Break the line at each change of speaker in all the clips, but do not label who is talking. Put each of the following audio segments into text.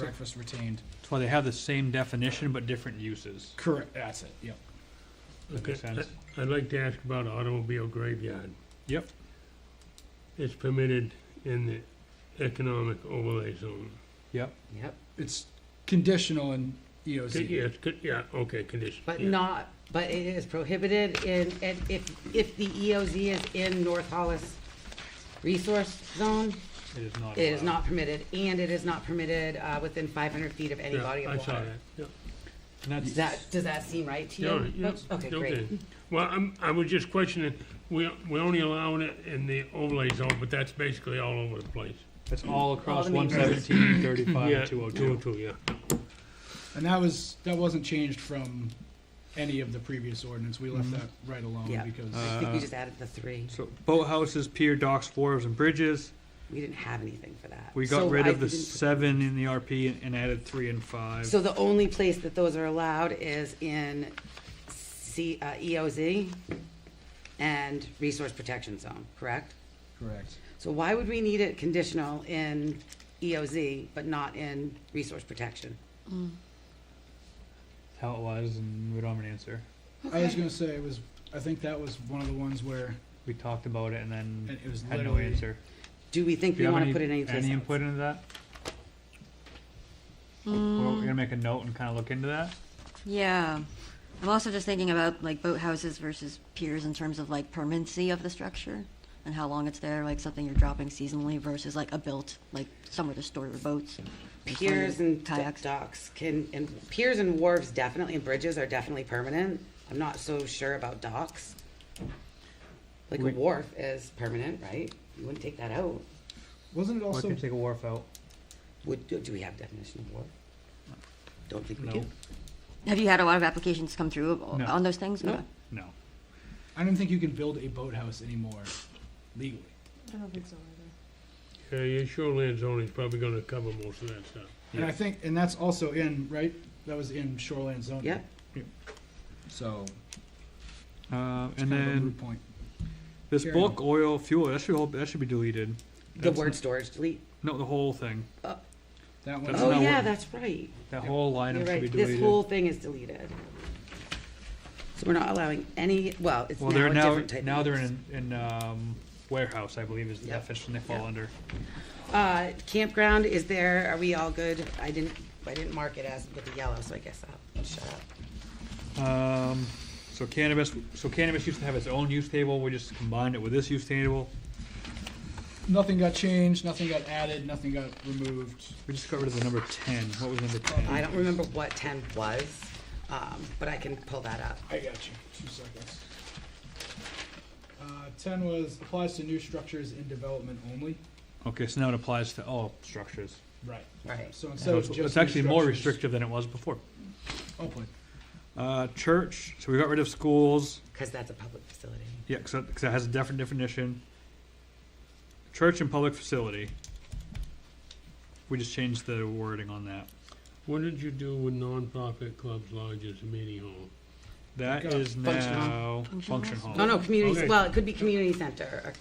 breakfast retained.
That's why they have the same definition but different uses.
Correct, that's it, yep.
That
Okay,
makes sense.
I- I'd like to ask about automobile graveyard.
Yep.
It's permitted in the economic overlay zone.
Yep.
Yep,
It's conditional in E EOZ.
Yeah, it's good, yeah, okay, condition.
but
yeah.
not, but it is prohibited in, and if, if the EOZ is in North Hollis Resource Zone,
It is not.
it is
allowed.
not permitted, and it is not permitted, uh, within five hundred feet of any
Yeah,
body
I
of
saw
water.
that, yeah.
And that's-
Does that, does that seem right to you?
Yeah, yeah,
Oh, Okay, great.
Well, I'm, I was just questioning, we, we only allowing it in the overlay zone, but that's basically all over the place.
That's all across
the main
one seventeen, thirty-five,
Yeah,
and two oh
Two oh
two.
two, yeah.
And that was, that wasn't changed from any of the previous ordinance, we
Mm-hmm.
left that right alone
Yeah.
because.
I
Uh,
think we just added the three.
So boathouses, pier, docks, wharves, and bridges.
We didn't have anything for that.
We got
So
rid
I
of the
didn't-
seven in the RP and- and added three and five.
So the only place that those are allowed is in C, uh, EOZ and Resource Protection Zone, correct?
Correct.
So why would we need it conditional in EOZ but not in Resource Protection?
How it was, and we don't have an answer.
I was gonna say, it was, I think that was one of the ones where
We talked about it and then
it was
had no
literally.
answer.
Do we think
Do
we
you have
wanna
any,
put it anyplace
any input
else?
into that? We're we're gonna make a note and kinda look into that.
Yeah. I'm also just thinking about like boathouses versus piers in terms of like permanency of the structure and how long it's there, like something you're dropping seasonally versus like a built, like somewhere to store your boats. or store your
Piers and d-
kayaks.
docks can, and piers and wharves definitely, and bridges are definitely permanent. I'm not so sure about docks. Like a
We-
wharf is permanent, right? You wouldn't take that out.
Wasn't it
Or
also,
could take a wharf out.
Would, do do we have definition of wharf? Don't think we
No.
do.
Have you had a lot of applications come through o-
No.
on those things?
No.
Okay.
No.
I don't think you can build a boathouse anymore legally.
I don't think so either.
Yeah, your shoreline zone is probably gonna cover most of that stuff.
And I think, and that's also in, right, that was in shoreline zoning.
Yep.
So.
Uh,
it's
and
kind of a
then
moot Point.
this
Carry
book, oil, fuel, that should all, that should be deleted.
The
That's
word
not-
storage delete.
No, the whole thing.
That
That's
Oh,
not
one,
yeah,
what-
that's right.
That whole line
You're
item should be
right. This
deleted.
whole thing is deleted. So we're not allowing any, well, it's now
Well,
a
they're now,
different type. of
now they're
use.
in, in, um, warehouse, I believe is the
Yep.
definition they fall
Yep.
under.
Uh, campground is there, are we all good? I didn't, I didn't mark it as with the yellow, so I guess I'll shut up.
Um, so cannabis, so cannabis used to have its own use table, we just combined it with this use table.
nothing got changed, nothing got added, nothing got removed.
We just got rid of the number ten, what was number ten?
I don't remember what ten was, um, but I can pull that up.
I got you. Two seconds. Uh, ten was applies to new structures in development only.
Okay, so now it applies to all structures.
Right.
Right.
So instead
So
of
it's,
just
it's
new
actually more
structures-
restrictive than it was before.
Oh, boy.
Uh, church, so we got rid of schools,
Cause that's a public facility.
yeah, cause it, 'cause it has a different definition. Church and public facility. We just changed the wording on that.
What did you do with nonprofit clubs, lodges, and meeting hall?
That
Got
is
function hall.
now function hall.
No, Oh, no, community,
Okay.
well, it could be community center. or-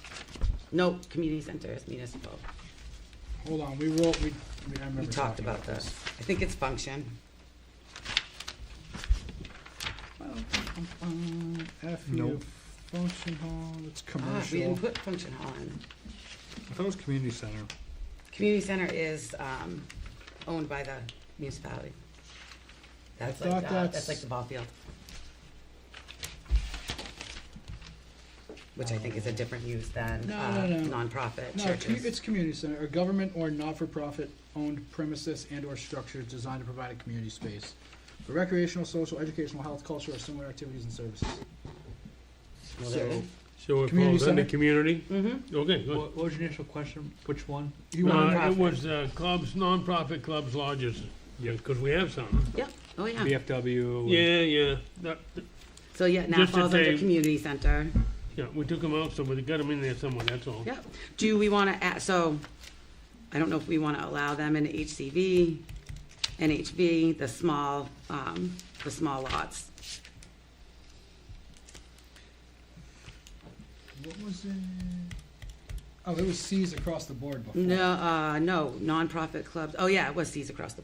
No, community center is municipal.
Hold on. We roll. We. we I remember
We talked
talking
about this. I think it's function. Ah,
Uh, F
Nope.
function hall. It's
Ah, we
commercial.
didn't put function hall in.
I thought it was community center.
Community center is, um, owned by the municipality. That's
thought
like, uh,
that's-
that's like the ball field. Which I think is a different use than,
No,
uh,
no, no.
nonprofit
No, it's,
churches.
it's community center, a government or not-for-profit owned premises and/or structures designed to provide a community space for recreational, social, educational, health, cultural, or similar activities and services.
Well, there it
So,
is.
So it
Community
falls under
center?
community?
Mhm.
Okay, good.
What, what was your initial question? Which one?
you want,
Uh,
Nonprofit.
it was, uh, clubs, nonprofit clubs, lodges, yeah, cause we have some.
Yep, oh, yeah.
BFW.
Yeah, yeah, that,
So, yeah, now
Just to
falls under
say-
community center.
yeah, we took them out, so we got them in there somewhere, that's all.
Yep. Do we wanna add, so, I don't know if we wanna allow them in HCV, NHV, the small, um, the small lots.
what was it? Oh, it was C's across the board before.
No, uh, no, nonprofit clubs, oh yeah, it was C's across the